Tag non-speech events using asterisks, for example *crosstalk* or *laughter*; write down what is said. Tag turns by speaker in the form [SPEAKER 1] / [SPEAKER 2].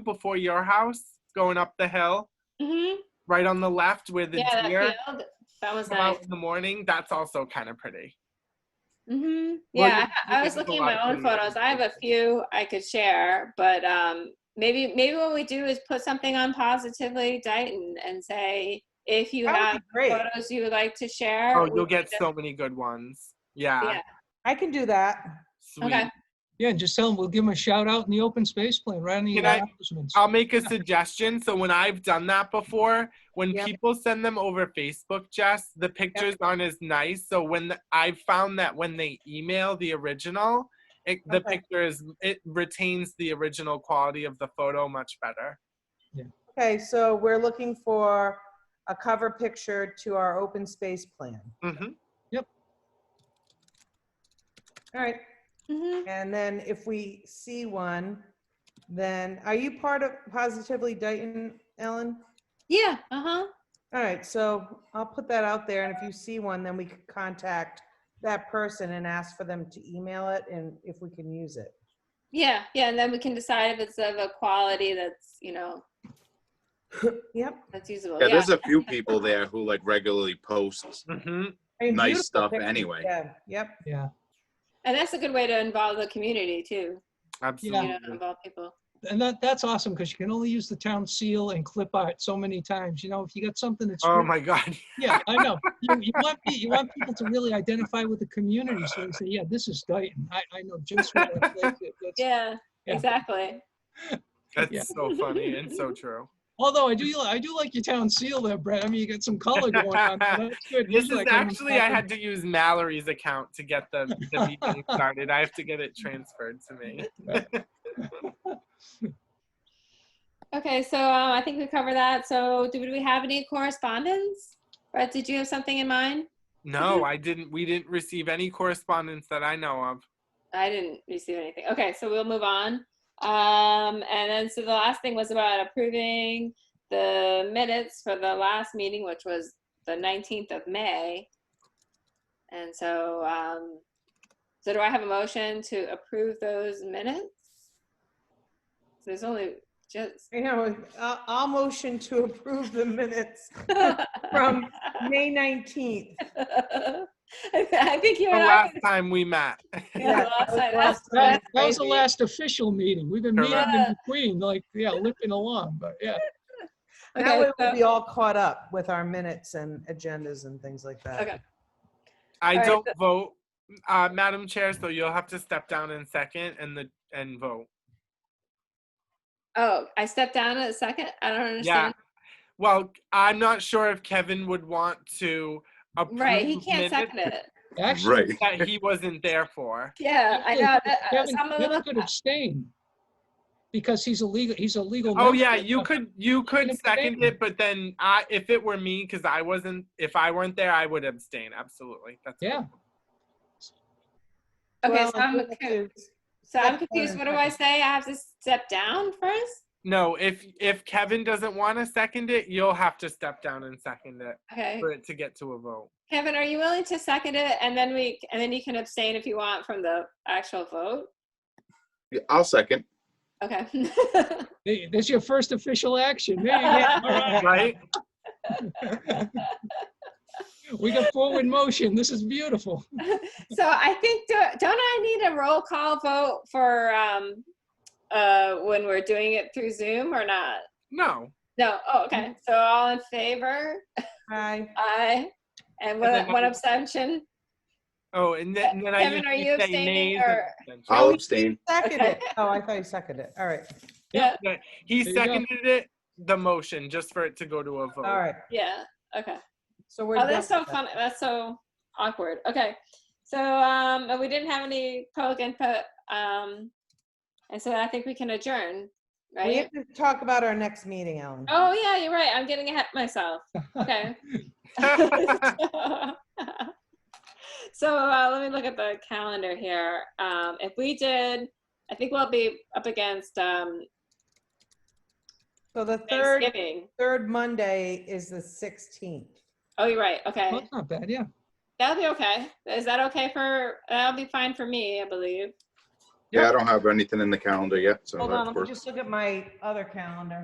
[SPEAKER 1] before your house, going up the hill,
[SPEAKER 2] hmm
[SPEAKER 1] right on the left where the
[SPEAKER 2] Yeah, that
[SPEAKER 1] deer
[SPEAKER 2] field. That was
[SPEAKER 1] come out
[SPEAKER 2] nice.
[SPEAKER 1] in the morning. That's also kind of pretty.
[SPEAKER 2] hmm
[SPEAKER 1] Well,
[SPEAKER 2] Yeah,
[SPEAKER 1] you-
[SPEAKER 2] I, I
[SPEAKER 1] you
[SPEAKER 2] was
[SPEAKER 1] can
[SPEAKER 2] looking at
[SPEAKER 1] go
[SPEAKER 2] my
[SPEAKER 1] out
[SPEAKER 2] own
[SPEAKER 1] and-
[SPEAKER 2] photos. I have a few I could share, but um, maybe maybe what we do is put something on positively Dighton and say if you
[SPEAKER 3] That
[SPEAKER 2] have
[SPEAKER 3] would be Oh, great.
[SPEAKER 2] photos you would like to share.
[SPEAKER 1] Oh,
[SPEAKER 2] we
[SPEAKER 1] you'll
[SPEAKER 2] can
[SPEAKER 1] get
[SPEAKER 2] just-
[SPEAKER 1] so many good ones. Yeah.
[SPEAKER 2] Yeah.
[SPEAKER 3] I can do that.
[SPEAKER 1] Sweet.
[SPEAKER 2] Okay.
[SPEAKER 4] Yeah, and just tell them, we'll give them a shout out in the open space plan, right in the
[SPEAKER 1] Can I-
[SPEAKER 4] announcements.
[SPEAKER 1] I'll make a suggestion. So when I've done that before, when
[SPEAKER 3] Yep.
[SPEAKER 1] people send them over Facebook, Jess, the pictures aren't as nice. So when the, I've found that when they email the original, it, the
[SPEAKER 3] Okay.
[SPEAKER 1] picture is it retains the original quality of the photo much better.
[SPEAKER 3] Okay, so we're looking for a cover picture to our open space plan.
[SPEAKER 1] hmm
[SPEAKER 3] All right,
[SPEAKER 2] Mhm.
[SPEAKER 3] and then if we see one, then are you part of Positively Dayton, Ellen?
[SPEAKER 2] Yeah. Uh huh.
[SPEAKER 3] All right, so I'll put that out there, and if you see one, then we could contact that person and ask for them to email it and if we can use it.
[SPEAKER 2] Yeah. Yeah. And then we can decide if it's of a quality that's you know
[SPEAKER 3] Yep.
[SPEAKER 2] that's usable.
[SPEAKER 5] Yeah, there's a few people there who like regularly post
[SPEAKER 1] hmm
[SPEAKER 3] I mean,
[SPEAKER 5] Nice
[SPEAKER 3] beautiful
[SPEAKER 5] stuff
[SPEAKER 3] pictures,
[SPEAKER 5] anyway.
[SPEAKER 3] Yeah, yep.
[SPEAKER 4] Yeah,
[SPEAKER 2] and that's a good way to involve the community too.
[SPEAKER 1] Absolutely.
[SPEAKER 2] You know, involve people.
[SPEAKER 4] and that, that's awesome, because you can only use the town seal and clip art so many times, you know, if you got something that's.
[SPEAKER 1] Oh
[SPEAKER 4] really-
[SPEAKER 1] my *laughs* God.
[SPEAKER 4] Yeah, I know. You, you want, pe- you want people to really identify with the community, so they say, yeah, this is Dayton, I, I know just where that place is. That's-
[SPEAKER 2] Yeah.
[SPEAKER 4] Yeah.
[SPEAKER 2] Exactly.
[SPEAKER 1] That's
[SPEAKER 4] Yeah.
[SPEAKER 1] so funny and so
[SPEAKER 2] *laughs*
[SPEAKER 1] true.
[SPEAKER 4] Although I do, li- I do like your town seal there, Brett, I mean, you got some color going on, there. that's good.
[SPEAKER 1] This
[SPEAKER 4] Usually
[SPEAKER 1] is
[SPEAKER 4] I come
[SPEAKER 1] actually, I
[SPEAKER 4] across
[SPEAKER 1] had to use Mallory's account to get the,
[SPEAKER 2] *laughs*
[SPEAKER 1] the meeting started. I have to get it transferred to me.
[SPEAKER 2] Okay, so um, I think we covered that. So do we have any correspondence? Brett, did you have something in mind?
[SPEAKER 1] No,
[SPEAKER 2] *laughs*
[SPEAKER 1] I didn't. We didn't receive any correspondence that I know of.
[SPEAKER 2] I didn't receive anything. Okay, so we'll move on. Um, and then, so the last thing was about approving the minutes for the last meeting, which was the 19th of May. And so, um, so do I have a motion to approve those minutes? There's only just. *laughs*
[SPEAKER 3] You know, I'll, I'll motion to *laughs* approve the minutes
[SPEAKER 2] *laughs*
[SPEAKER 3] from May 19th.
[SPEAKER 2] I I think you
[SPEAKER 1] The
[SPEAKER 2] and I.
[SPEAKER 1] last time we met.
[SPEAKER 2] *laughs* Yeah, last time, that's-
[SPEAKER 3] Last time.
[SPEAKER 4] That that was the last official meeting, we've been meeting in
[SPEAKER 2] Correct.
[SPEAKER 4] between, like, yeah, lipping along, but yeah.
[SPEAKER 3] That way
[SPEAKER 2] Okay,
[SPEAKER 3] we'll
[SPEAKER 2] so-
[SPEAKER 3] be all caught up with our minutes and agendas and things like that.
[SPEAKER 2] okay.
[SPEAKER 1] *laughs* I
[SPEAKER 2] All right,
[SPEAKER 1] don't vote, uh, Madam Chair, so you'll have to step down in second and the and vote.
[SPEAKER 2] Oh, I stepped down in a second? I don't
[SPEAKER 1] Yeah.
[SPEAKER 2] understand.
[SPEAKER 1] Well, I'm not sure if Kevin would want to approve
[SPEAKER 2] Right, he can't second
[SPEAKER 1] minutes
[SPEAKER 4] *laughs*
[SPEAKER 2] it.
[SPEAKER 4] Actually,
[SPEAKER 5] right.
[SPEAKER 1] that he wasn't there for.
[SPEAKER 2] Yeah, I
[SPEAKER 4] Kevin-
[SPEAKER 2] know. that- uh,
[SPEAKER 4] Kevin
[SPEAKER 2] so I'm a
[SPEAKER 4] Kevin
[SPEAKER 2] little,
[SPEAKER 4] could abstain because he's illegal, he's a legal.
[SPEAKER 1] Oh
[SPEAKER 4] member
[SPEAKER 1] yeah,
[SPEAKER 4] of
[SPEAKER 1] you
[SPEAKER 4] the-
[SPEAKER 1] could you could
[SPEAKER 4] Abstain.
[SPEAKER 1] second it, but then I if it were me, because I wasn't if I weren't there, I would abstain. Absolutely. That's
[SPEAKER 4] Yeah.
[SPEAKER 2] okay,
[SPEAKER 3] Well,
[SPEAKER 2] so I'm,
[SPEAKER 3] I think
[SPEAKER 2] confu-
[SPEAKER 3] it's-
[SPEAKER 2] so I'm
[SPEAKER 3] step down
[SPEAKER 2] confused.
[SPEAKER 3] in
[SPEAKER 2] What do I say? I have to step down first?
[SPEAKER 1] No, if if Kevin doesn't want to second it, you'll have to step down and second it
[SPEAKER 2] Okay.
[SPEAKER 1] for it to get to a vote.
[SPEAKER 2] Kevin, are you willing to second it? And then we, and then you can abstain if you want from the actual vote?
[SPEAKER 5] Yeah, I'll second.
[SPEAKER 2] Okay. *laughs*
[SPEAKER 4] Hey, That's your first official action. There
[SPEAKER 2] *laughs*
[SPEAKER 4] you go.
[SPEAKER 2] Uh,
[SPEAKER 4] All
[SPEAKER 1] Right?
[SPEAKER 4] right. We got forward motion. This is beautiful.
[SPEAKER 2] So I think, do- don't I need a roll call vote for, um, uh, when we're doing it through Zoom or not?
[SPEAKER 1] No.
[SPEAKER 2] No, oh,
[SPEAKER 3] Mm-hmm.
[SPEAKER 2] okay. So all in favor?
[SPEAKER 3] Aye.
[SPEAKER 2] Aye. And
[SPEAKER 1] then
[SPEAKER 2] one, one
[SPEAKER 1] I-
[SPEAKER 2] abstention?
[SPEAKER 1] Oh, and then, and then I
[SPEAKER 2] Kevin,
[SPEAKER 1] used
[SPEAKER 2] are
[SPEAKER 1] to
[SPEAKER 2] you
[SPEAKER 1] say
[SPEAKER 2] abstaining
[SPEAKER 1] nays and
[SPEAKER 2] or-
[SPEAKER 1] abstentions.
[SPEAKER 5] I'll abstain.
[SPEAKER 3] Second
[SPEAKER 2] Okay.
[SPEAKER 3] it. Oh, I thought you seconded it. All right,
[SPEAKER 4] Yeah.
[SPEAKER 1] Yeah, He
[SPEAKER 4] There you go.
[SPEAKER 1] seconded it, the motion, just for it to go to a vote.
[SPEAKER 3] all right.
[SPEAKER 2] Yeah, okay.
[SPEAKER 3] So we're.
[SPEAKER 2] Oh, that's so
[SPEAKER 3] done with that.
[SPEAKER 2] funny. That's so awkward. Okay. So, um, and we didn't have any public input, um, and so I think we can adjourn,
[SPEAKER 3] We
[SPEAKER 2] right?
[SPEAKER 3] have to talk about our next meeting, Ellen.
[SPEAKER 2] Oh, yeah, you're right. I'm getting ahead of myself.
[SPEAKER 3] *laughs*
[SPEAKER 2] Okay. *laughs*
[SPEAKER 1] *laughs*
[SPEAKER 2] So, uh, let me look at the calendar here. Um, if we did, I think we'll be up against, um,
[SPEAKER 3] So the third,
[SPEAKER 2] Thanksgiving.
[SPEAKER 3] third Monday is the 16th.
[SPEAKER 2] Oh, you're right. Okay.
[SPEAKER 4] That's not bad, yeah.
[SPEAKER 2] That'll be okay. Is that okay for, that'll be fine for me, I believe.
[SPEAKER 5] Yeah, I don't have anything in the calendar yet, so.
[SPEAKER 3] Hold
[SPEAKER 5] that
[SPEAKER 3] on, let me
[SPEAKER 5] works.
[SPEAKER 3] just look at my other calendar.